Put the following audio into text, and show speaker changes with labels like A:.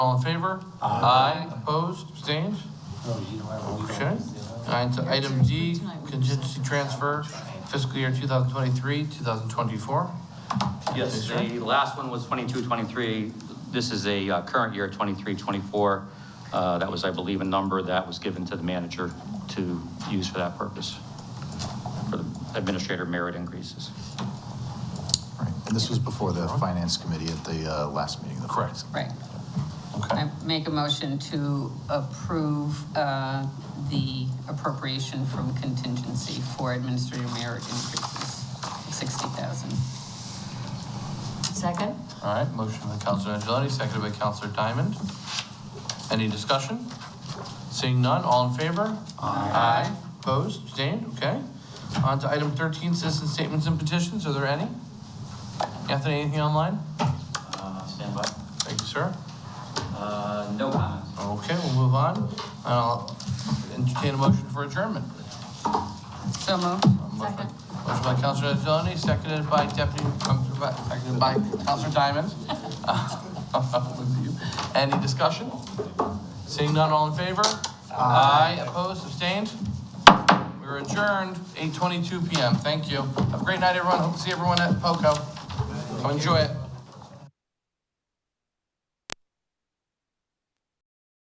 A: All in favor? Aye. Opposed, abstained?
B: Oh, you don't have a week
A: Okay.
B: on this, you know?
A: And to item D, contingency transfer fiscal year 2023, 2024.
C: Yes,
A: Yes, sir.
C: the last one was 22, 23. This is a uh, current year, 23, 24. Uh, That was, I believe, a number that was given to the manager to use for that purpose, for the administrator merit increases.
D: Right, and this was before the finance committee at the uh, last meeting. of the
A: Correct.
D: finance
E: Right.
A: Okay.
E: I make a motion to approve uh, the appropriation from contingency for administrative merit increases, 60,000.
F: Second?
A: All right, motion by Counselor Angelotti, seconded by Counselor Diamond. Any discussion? Seeing none, all in favor? Aye. Opposed, abstained, okay. On to item 13, citizen statements and petitions, are there any? Anthony, anything online?
G: Uh, Stand by.
A: Thank you, sir.
G: Uh, No comments.
A: Okay, we'll move on. And I'll entertain a motion for adjournment.
E: So moved.
A: Motion by-
F: Second.
A: Motion by Counselor Angeloni, seconded by Deputy, um, by- seconded by Counselor Diamond. With you. Any discussion? Seeing none, all in favor? Aye. Opposed, abstained? We're adjourned, eight twenty-two PM. Thank you. Have a great night, everyone. Hope to see everyone at POCO. Come enjoy it.